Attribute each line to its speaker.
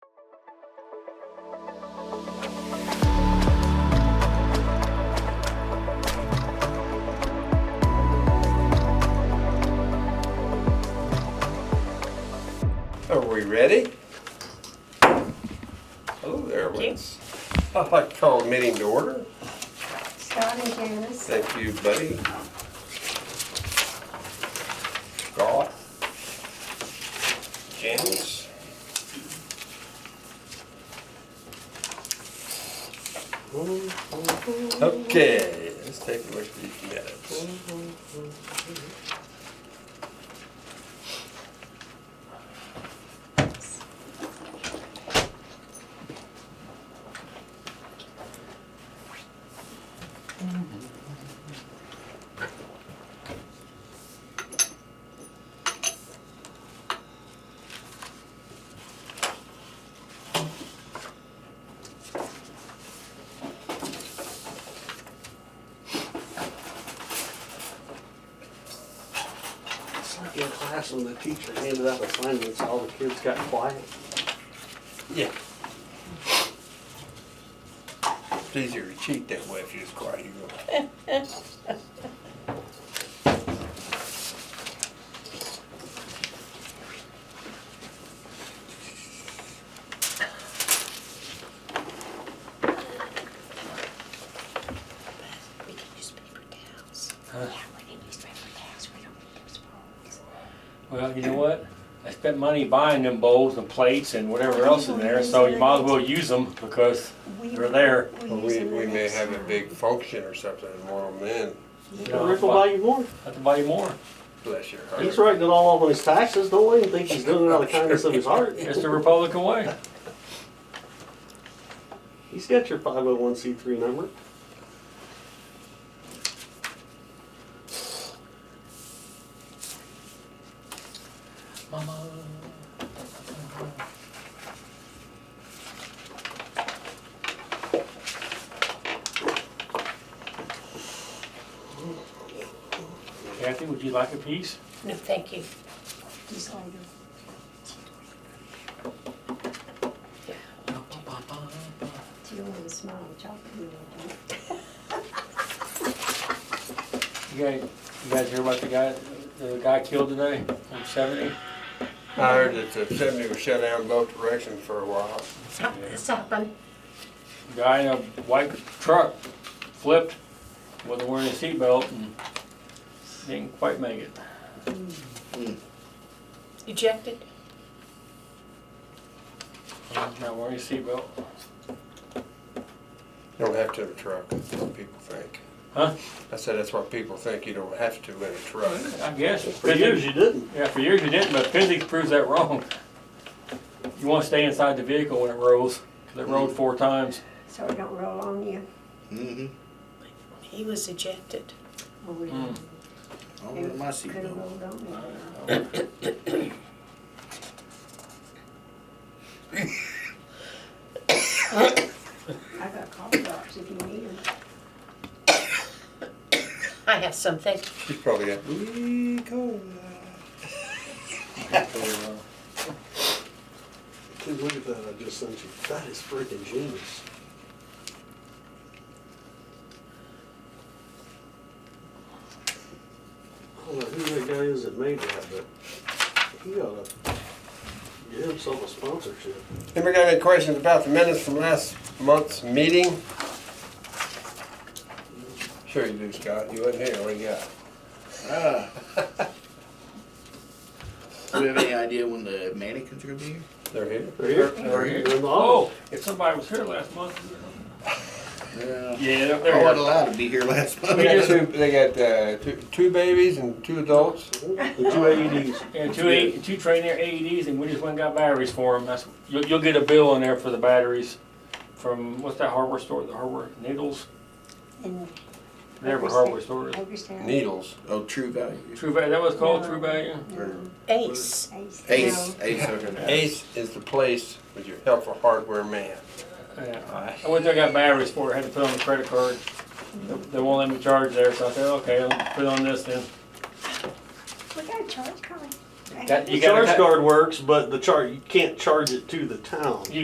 Speaker 1: ready? Hello there, Wes. I'd like to call a meeting to order.
Speaker 2: Scott and Janice.
Speaker 1: Thank you, buddy. Scott. Janice. Okay, let's take a look at these minutes.
Speaker 3: It's like in class when the teacher handed out assignments, all the kids got quiet.
Speaker 1: Yeah. It's easier to cheat that way if you're just quiet. You go.
Speaker 4: We can use paper towels.
Speaker 5: Huh?
Speaker 4: Yeah, we can use paper towels. We don't need those bowls.
Speaker 5: Well, you know what? I spent money buying them bowls and plates and whatever else in there, so you might as well use them because they're there.
Speaker 1: Well, We, we may have a big function or something tomorrow, man.
Speaker 5: You
Speaker 3: The
Speaker 5: know,
Speaker 3: Rick will buy you more.
Speaker 5: Have to buy you more.
Speaker 1: Bless your
Speaker 3: He's
Speaker 1: heart.
Speaker 3: writing it all off on his taxes. Don't let him think he's doing it out of the kindness of his heart.
Speaker 5: It's the Republican way.
Speaker 3: He's got your five oh one C three number.
Speaker 5: Mama. Kathy, would you like a piece?
Speaker 4: No, thank you.
Speaker 2: Just like a- Do you want a small chocolate? You want one?
Speaker 5: You guys, you guys hear about the guy, the guy killed today, on seventy?
Speaker 1: I heard that the seventy was shut down both directions for a while.
Speaker 4: It's happened.
Speaker 5: Guy in a white truck flipped, wasn't wearing a seatbelt and didn't quite make it.
Speaker 4: Ejected.
Speaker 5: Not wearing a seatbelt.
Speaker 1: You don't have to have a truck, that's what people think.
Speaker 5: Huh?
Speaker 1: I said that's what people think, you don't have to in a truck.
Speaker 5: I guess.
Speaker 3: For years you didn't.
Speaker 5: Yeah, for years you didn't, but physics proves that wrong. You wanna stay inside the vehicle when it rolls, 'cause it rolled four times.
Speaker 2: So it don't roll on you.
Speaker 6: Mm-hmm.
Speaker 4: He was ejected.
Speaker 2: Oh, we
Speaker 5: Mm.
Speaker 6: I wear my
Speaker 2: Could have
Speaker 6: seatbelt.
Speaker 2: rolled on me. I got cough drops if you need them.
Speaker 4: I have something.
Speaker 1: She's probably got, "Wee cola."
Speaker 3: Dude, look at that I just sent you. That is freaking genius. I don't know who that guy is that made that, but he ought to get himself a sponsorship.
Speaker 1: Anybody got any questions about the minutes from last month's meeting? Sure you do, Scott, you wasn't here, what do you got?
Speaker 6: Ah. Do you have any idea when the mannequins are gonna be here?
Speaker 1: They're here?
Speaker 3: They're here.
Speaker 5: They're here.
Speaker 3: They're in the office.
Speaker 5: Oh, if somebody was here last month. Yeah,
Speaker 6: Yeah.
Speaker 5: they're-
Speaker 6: I wasn't
Speaker 5: they're,
Speaker 6: allowed to be here last month.
Speaker 1: They got two, they got, uh, two, two babies and two adults.
Speaker 3: The two AEDs.
Speaker 5: and two, A- two trained their AEDs and we just went and got batteries for them. That's, you'll, you'll get a bill in there for the batteries from, what's that hardware store, the hardware, Needles?
Speaker 2: And
Speaker 5: Whatever
Speaker 2: Overstock.
Speaker 5: hardware store it is.
Speaker 2: Hagerstown.
Speaker 1: Needles.
Speaker 6: Oh, True Value.
Speaker 5: True Value, that was called True Value?
Speaker 2: No.
Speaker 4: Ace.
Speaker 2: Ace.
Speaker 6: Ace.
Speaker 2: No.
Speaker 6: Ace okay.
Speaker 1: Ace is the place with your helpful hardware man.
Speaker 5: Yeah, I went there, got batteries for it, had to put on the credit card. They- They won't let me charge there, so I said, okay, I'll put it on this then.
Speaker 2: We got a charge card.
Speaker 5: That-
Speaker 3: The
Speaker 5: You gotta
Speaker 3: charge
Speaker 5: cut-
Speaker 3: guard works, but the char, you can't charge it to the town.